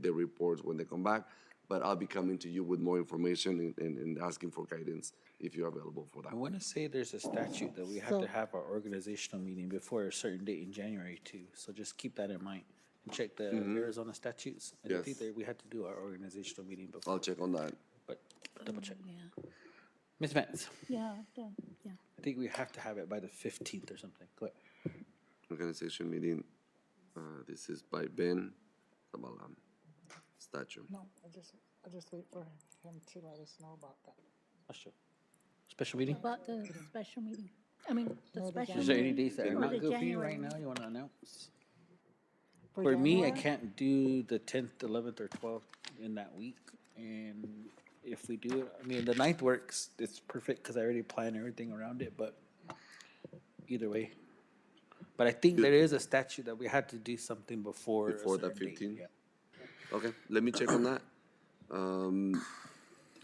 the reports when they come back. But I'll be coming to you with more information and, and, and asking for guidance if you're available for that. I want to say there's a statute that we have So- to have our organizational meeting before a certain date in January too. So just keep that in mind and check the Arizona statutes. I don't Yes. think that we have to do our organizational meeting I'll before, check on that. but double check. Yeah, Ms. Vance, yeah, yeah, yeah. I think we have to have it by the fifteenth or something. Go ahead. Organization meeting, uh, this is by Ben Zabalam, statue. No, I just, I just wait for him to let us know about that. That's true. Special meeting? About the special meeting, I mean, the special. Is there any meeting days that are for not the good for you January right now meeting. you want to announce? For me, I January? can't do the tenth, eleventh, or twelfth in that week, and if we do it, I mean, the ninth works, it's perfect, cause I already plan everything around it, but either way. But I think there is a statute that we had to do something before. a Before the certain date, 15th? yeah. Okay, let me check on that. Um,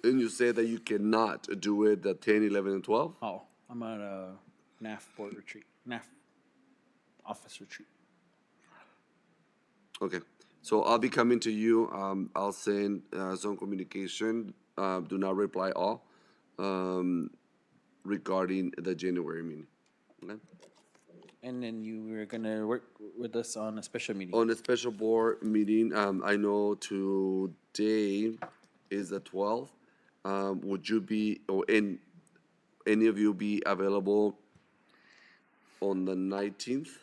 and you say that you cannot do it the 10, 11, and 12? Oh, I'm at a NAF board retreat, NAF office retreat. Okay, so I'll be coming to you, um, I'll send, uh, Zone Communication, uh, do not reply all, um, regarding the January meeting. Okay? And then you were gonna work with us on a special meeting. On a special board meeting, um, I know today is the twelfth. Um, would you be, or in, any of you be available on the nineteenth?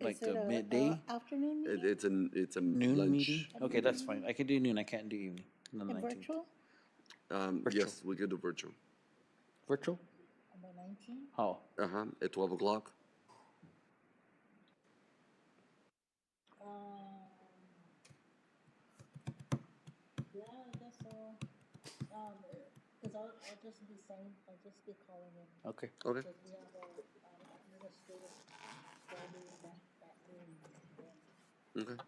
Like Is it the a, uh, midday? Afternoon It, meeting, it's an, it's a Noon meeting? lunch. Okay, that's fine. I can do noon. I can't do evening. on the and 19th. virtual Um, yes, we could do virtual. Virtual? Oh. on the nineteenth? How? Uh-huh, at twelve o'clock. um, Yeah, I guess so, um, cause I'll, I'll just be saying, I'll just be calling in, Okay. Okay, we have a, um, administrative gathering that, that room. okay.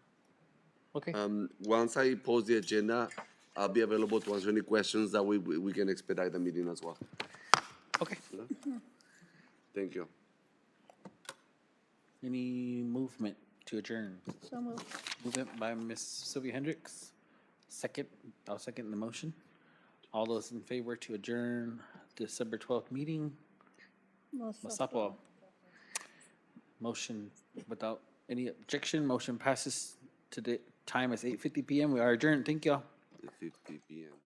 Okay. Um, once I post the agenda, I'll be available to answer any questions that we, we we can expedite the meeting as well. okay. Thank you. Any movement to adjourn? So moved. Movement by Miss Sylvia Hendricks. Second, I'll second the motion. All those in favor to adjourn December twelfth meeting, Masapo. Motion without any objection, motion passes to the time is eight fifty PM. We are adjourned. Thank y'all. At fifty PM.